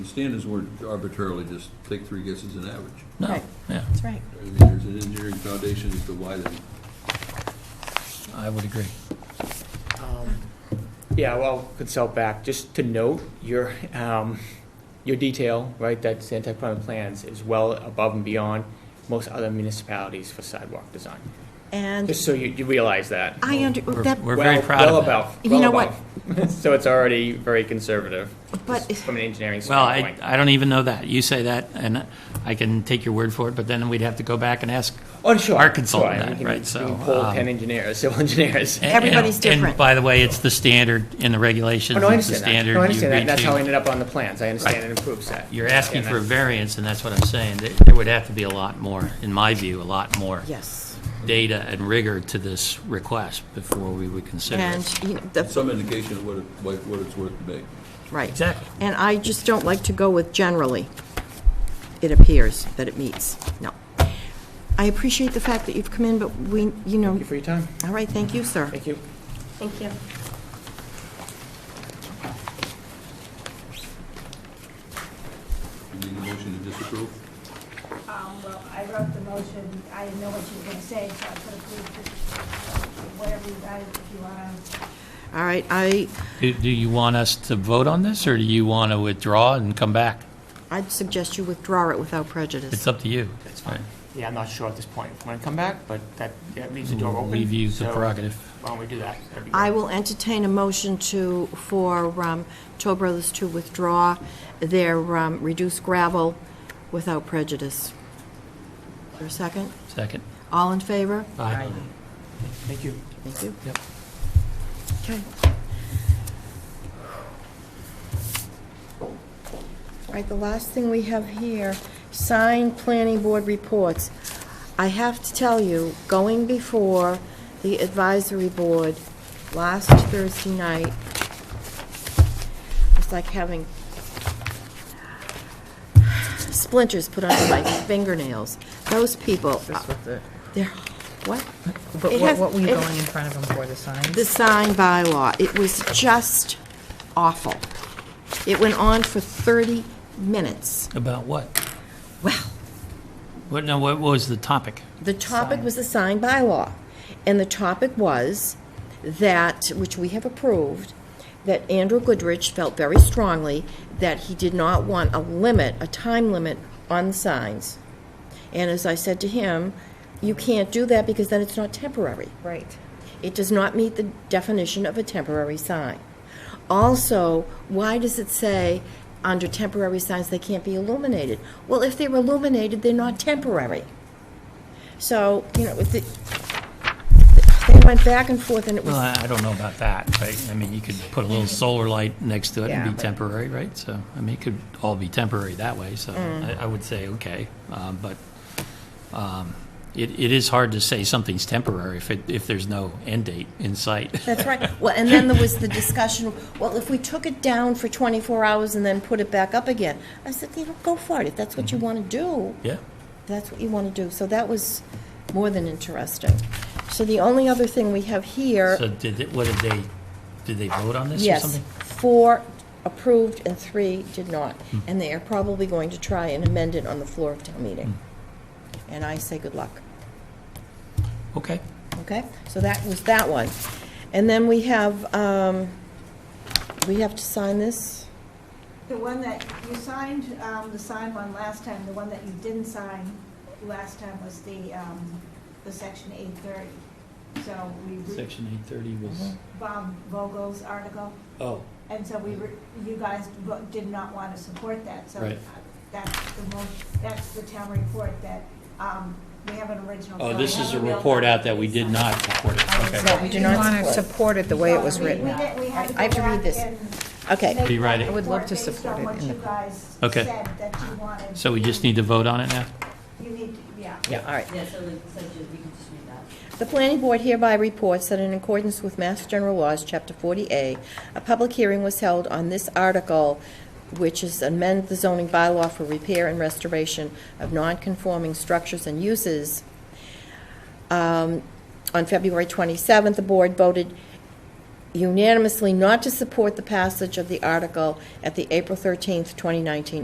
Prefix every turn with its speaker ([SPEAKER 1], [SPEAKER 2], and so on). [SPEAKER 1] Standards weren't arbitrarily just take three guesses and average.
[SPEAKER 2] No,
[SPEAKER 3] Right.
[SPEAKER 2] yeah,
[SPEAKER 3] That's right.
[SPEAKER 1] I mean, there's an engineering foundation as to why they
[SPEAKER 2] I would agree.
[SPEAKER 4] Um, Yeah, well, consult back, just to note, your, um, your detail, right, that's anti-climate plans is well above and beyond most other municipalities for sidewalk design.
[SPEAKER 3] And
[SPEAKER 4] Just so you, you realize that.
[SPEAKER 3] I under,
[SPEAKER 2] Oh, We're-
[SPEAKER 3] that,
[SPEAKER 2] We're very
[SPEAKER 4] Well-
[SPEAKER 2] proud of
[SPEAKER 4] Well
[SPEAKER 2] that.
[SPEAKER 4] above,
[SPEAKER 3] You
[SPEAKER 4] well
[SPEAKER 3] know what?
[SPEAKER 4] above. So it's already very conservative,
[SPEAKER 3] But-
[SPEAKER 4] just from an engineering
[SPEAKER 2] Well, I,
[SPEAKER 4] standpoint.
[SPEAKER 2] I don't even know that. You say that, and I can take your word for it, but then we'd have to go back and ask.
[SPEAKER 4] Oh, sure.
[SPEAKER 2] our consultant
[SPEAKER 4] sure, and
[SPEAKER 2] that,
[SPEAKER 4] we can-
[SPEAKER 2] right,
[SPEAKER 4] we
[SPEAKER 2] so,
[SPEAKER 4] can Pull
[SPEAKER 2] um,
[SPEAKER 4] ten engineers, civil engineers.
[SPEAKER 2] and-
[SPEAKER 3] Everybody's
[SPEAKER 2] and- And
[SPEAKER 3] different.
[SPEAKER 2] by the way, it's the standard in the regulations.
[SPEAKER 4] Oh, no, I
[SPEAKER 2] it's the
[SPEAKER 4] understand that.
[SPEAKER 2] standard
[SPEAKER 4] No, I
[SPEAKER 2] you
[SPEAKER 4] understand that.
[SPEAKER 2] agree
[SPEAKER 4] That's how
[SPEAKER 2] to.
[SPEAKER 4] I ended up on the plans. I
[SPEAKER 2] Right.
[SPEAKER 4] understand and improves that.
[SPEAKER 2] You're asking
[SPEAKER 4] Yeah,
[SPEAKER 2] for a
[SPEAKER 4] that-
[SPEAKER 2] variance, and that's what I'm saying. There- There would have to be a lot more, in my view, a lot more
[SPEAKER 3] yes,
[SPEAKER 2] data and rigor to this request before we would consider it.
[SPEAKER 3] and, you know, the,
[SPEAKER 1] some indication of what it, like, what it's worth to make.
[SPEAKER 3] right.
[SPEAKER 2] Exactly.
[SPEAKER 3] And I just don't like to go with generally. It appears that it meets, no. I appreciate the fact that you've come in, but we, you know,
[SPEAKER 4] Thank you for your time.
[SPEAKER 3] all right, thank you, sir.
[SPEAKER 4] Thank you.
[SPEAKER 3] Thank you.
[SPEAKER 1] You Need a motion to disapprove?
[SPEAKER 5] Um, well, I wrote the motion, I didn't know what you were gonna say, so I put approved, whatever you guys, if you wanna,
[SPEAKER 3] All right, I,
[SPEAKER 2] Do do you want us to vote on this, or do you want to withdraw and come back?
[SPEAKER 3] I'd suggest you withdraw it without prejudice.
[SPEAKER 2] It's up to you.
[SPEAKER 4] That's fine. Yeah, I'm not sure at this point. When I come back, but that, that leaves the door
[SPEAKER 2] We'll
[SPEAKER 4] open.
[SPEAKER 2] leave you the
[SPEAKER 4] so
[SPEAKER 2] prerogative.
[SPEAKER 4] Why don't we do that? That'd be
[SPEAKER 3] I
[SPEAKER 4] great.
[SPEAKER 3] will entertain a motion to, for um, Toll Brothers to withdraw their um, reduced gravel without prejudice. Is there a second?
[SPEAKER 2] Second.
[SPEAKER 3] All in favor?
[SPEAKER 2] Aye.
[SPEAKER 4] Thank you.
[SPEAKER 3] Thank you.
[SPEAKER 2] Yep.
[SPEAKER 3] Okay. All right, the last thing we have here, signed planning board reports. I have to tell you, going before the advisory board last Thursday night, it's like having splinters put under my fingernails. Those people,
[SPEAKER 6] That's what the,
[SPEAKER 3] they're, what?
[SPEAKER 6] but
[SPEAKER 3] It
[SPEAKER 6] what,
[SPEAKER 3] has-
[SPEAKER 6] what were you
[SPEAKER 3] it-
[SPEAKER 6] going in front of them for, the signs?
[SPEAKER 3] the sign bylaw. It was just awful. It went on for 30 minutes.
[SPEAKER 2] About what?
[SPEAKER 3] Well,
[SPEAKER 2] What, no, what was the topic?
[SPEAKER 3] the topic was the sign bylaw, and the topic was that, which we have approved, that Andrew Goodrich felt very strongly that he did not want a limit, a time limit on signs. And as I said to him, you can't do that because then it's not temporary.
[SPEAKER 6] Right.
[SPEAKER 3] It does not meet the definition of a temporary sign. Also, why does it say under temporary signs they can't be illuminated? Well, if they're illuminated, they're not temporary. So, you know, with the, they went back and forth and it
[SPEAKER 2] Well,
[SPEAKER 3] was,
[SPEAKER 2] I I don't know about that, right? I mean, you could put a little solar light next to it
[SPEAKER 6] Yeah,
[SPEAKER 2] and be
[SPEAKER 6] but-
[SPEAKER 2] temporary, right? So, I mean, it could all be temporary that way, so
[SPEAKER 3] Mm.
[SPEAKER 2] I, I would say, okay. Um, But um, it, it is hard to say something's temporary if it, if there's no end date in sight.
[SPEAKER 3] that's right. Well, and then there was the discussion, well, if we took it down for 24 hours and then put it back up again, I said, you know, go for it. If that's
[SPEAKER 2] Mm-hmm.
[SPEAKER 3] what you want to do,
[SPEAKER 2] Yeah,
[SPEAKER 3] that's what you want to do. So that was more than interesting. So the only other thing we have here.
[SPEAKER 2] so did, it- what did they, did they vote on this or
[SPEAKER 3] Yes,
[SPEAKER 2] something?
[SPEAKER 3] four approved and three did not.
[SPEAKER 2] Hmm.
[SPEAKER 3] And they are probably going to try and amend it on the floor of town meeting.
[SPEAKER 2] Hmm.
[SPEAKER 3] And I say good luck,
[SPEAKER 2] Okay,
[SPEAKER 3] okay? So that was that one. And then we have, um, we have to sign this?
[SPEAKER 5] the one that you signed, um, the signed one last time, the one that you didn't sign last time was the, um, the section eight thirty. So we, re-
[SPEAKER 2] section eight thirty was,
[SPEAKER 3] Mm-hmm.
[SPEAKER 5] Bob Vogel's article,
[SPEAKER 2] oh,
[SPEAKER 5] and so we, re- you guys vo- did not wanna support that, so
[SPEAKER 2] Right.
[SPEAKER 5] that's the most, that's the town report that, um, we have an original.
[SPEAKER 2] oh,
[SPEAKER 5] so
[SPEAKER 2] this
[SPEAKER 5] I
[SPEAKER 2] is a
[SPEAKER 5] have mailbox
[SPEAKER 2] report out that we
[SPEAKER 5] that's
[SPEAKER 2] did
[SPEAKER 5] signed.
[SPEAKER 2] not support it, okay.
[SPEAKER 3] No, we do not
[SPEAKER 6] want to
[SPEAKER 3] support.
[SPEAKER 6] support it the way it was
[SPEAKER 5] We- we
[SPEAKER 6] written.
[SPEAKER 5] did- we had
[SPEAKER 3] I have to
[SPEAKER 5] go
[SPEAKER 3] read
[SPEAKER 5] back
[SPEAKER 3] this.
[SPEAKER 5] and
[SPEAKER 3] Okay.
[SPEAKER 5] make
[SPEAKER 2] Rewrite
[SPEAKER 5] that
[SPEAKER 2] it. I
[SPEAKER 6] would love to
[SPEAKER 5] report based
[SPEAKER 6] support
[SPEAKER 5] on
[SPEAKER 6] it
[SPEAKER 5] what
[SPEAKER 6] in
[SPEAKER 5] you
[SPEAKER 6] the-
[SPEAKER 5] guys
[SPEAKER 2] Okay.
[SPEAKER 5] said that you wanted.
[SPEAKER 2] So we just need to vote on it now?
[SPEAKER 5] You need, to- yeah.
[SPEAKER 3] Yeah, all right.
[SPEAKER 7] Yeah, so like, so just, we can just read that.
[SPEAKER 3] The planning board hereby reports that in accordance with Mass General Laws, Chapter 40A, a public hearing was held on this article, which is amend the zoning bylaw for repair and restoration of nonconforming structures and uses. Um, On February 27th, the board voted unanimously not to support the passage of the article at the April 13th, 2019